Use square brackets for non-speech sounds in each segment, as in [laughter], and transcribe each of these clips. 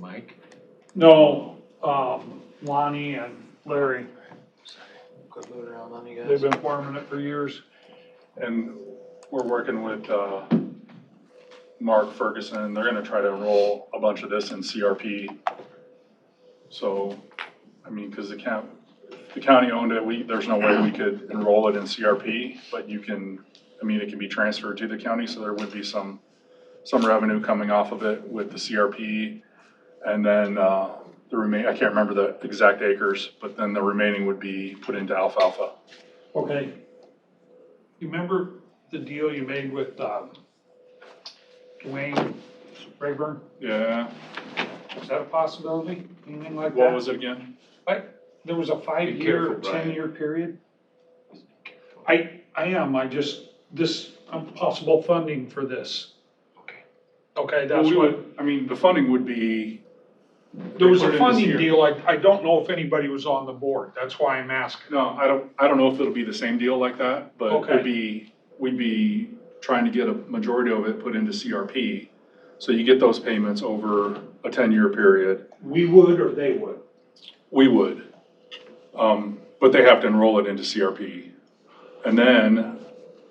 Mike? No, um, Lonnie and Larry, Quit moving around on you they've guys. been farming it for years. And we're working with uh, Mark Ferguson, they're gonna try to enroll a bunch of this in CRP. So, I mean, because the county, the county owned it, we, there's no way we could enroll it in CRP, but you can, I mean, it can be transferred to the county, so there would be some, some revenue coming off of it with the CRP. And then uh, the remain, I can't remember the exact acres, but then the remaining would be put into alfalfa. Okay. You remember the deal you made with, um, Dwayne Rayburn? Yeah, Is that a possibility? Anything like that? what was it again? Like, there was a five-year, careful, Brian. ten-year period? I, I am, I just, this, um, possible funding for this. Okay. Okay, Well, that's we what, would, I mean, the funding would be, there was put it a in this funding year. deal, I, I don't know if anybody was on the board, that's why I'm asking. no, I don't, I don't know if it'll be the same deal like that, but Okay. it'd be, we'd be trying to get a majority of it put into CRP. So you get those payments over a ten-year period. We would or they [laughs] would? We would. Um, but they have to enroll it into CRP. And then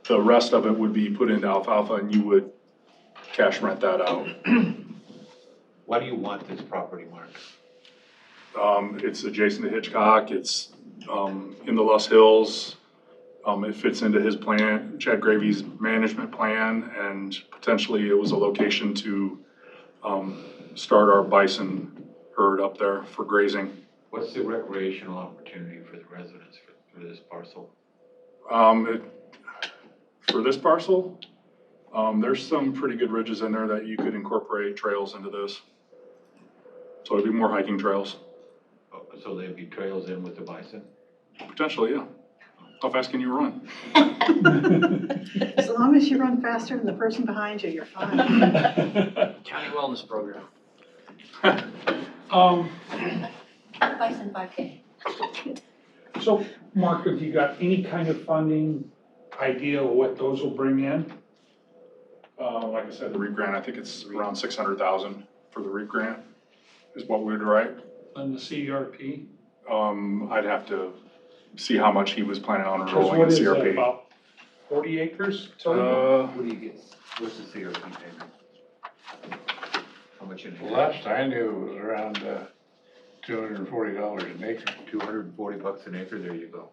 the rest of it would be put into alfalfa and you would cash rent that out. Why do you want this property, Mark? Um, it's adjacent to Hitchcock, it's, um, in the Lus Hills. Um, it fits into his plan, Chad Gravy's management plan, and potentially it was a location to, um, start our bison herd up there for grazing. What's the recreational opportunity for the residents for, for this parcel? Um, it, for this parcel, um, there's some pretty good ridges in there that you could incorporate trails into this. So it'd be more hiking trails, Oh, So there'd be trails in with the bison? potentially, yeah. How fast can you run? As long as you run faster than the person behind you, you're fine. County Wellness Program. [laughs] Um, Bison 5K. so, Mark, have you got any kind of funding idea of what those will bring in? Uh, like I said, the REAP grant, I think it's around six hundred thousand for the REAP grant is what we would write. On the E CRP? Um, I'd have to see how much he was planning on Because enrolling in what is that, CRP. about forty acres? total? Uh, What do you get, what's the CRP payment? How much in? The Last I knew it was around, uh, two hundred and forty dollars an acre. Two hundred and forty bucks an acre, there you go.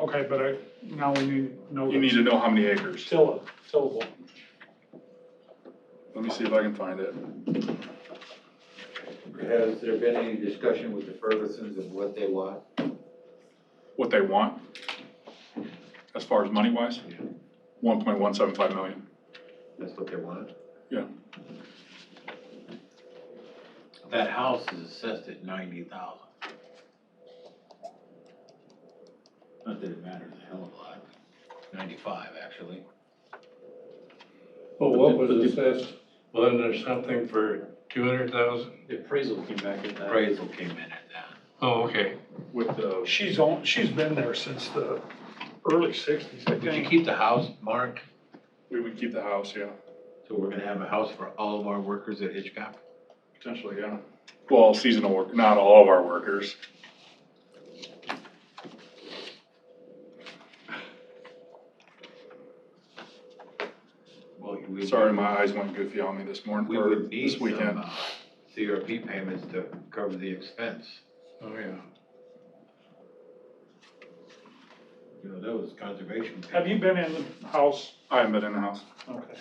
Okay, but I, now we need to know. you need to know how many acres. Tilla, tillable. Let me see if I can find it. Has there been any discussion with the Fergusons of what they want? What they want as far as money wise? Yeah. One point one seven five million. That's what they want? Yeah. That house is assessed at ninety thousand. Not that it matters a hell of a lot, ninety-five, actually. Oh, Well, what was assessed? Well, then there's something for two hundred thousand? The appraisal came back at that. Appraisal came in at that. Oh, okay. With the, She's on, she's been there since the early sixties, I Would you think. keep the house, Mark? we would keep the house, yeah, So we're gonna have a house for all of our workers at Hitchcock? potentially, yeah. Well, seasonal work, not all of our workers. Well, we would- Sorry, my eyes went goofy on me this morning, We or would need this some weekend. uh, CRP payments to cover the expense. Oh, yeah. You know, that was conservation. Have you been in the house? I haven't been in the house. Okay.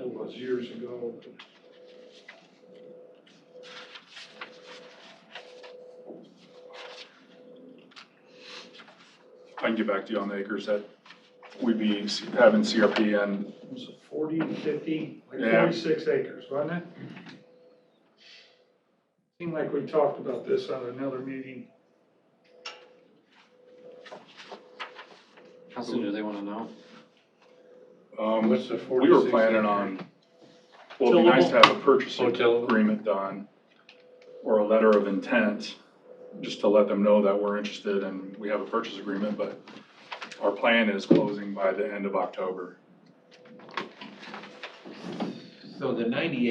It was years ago. I can get back to you on the acres that we'd be having CRP and, Was it forty, fifty, like Yeah. forty-six acres, wasn't it? Seemed like we talked about this on another meeting. How soon do they wanna know? um, What's the we were planning on, well, it'd be nice to have a purchase Hotel. agreement done or a letter of intent, just to let them know that we're interested and we have a purchase agreement, but our plan is closing by the end of October. So the ninety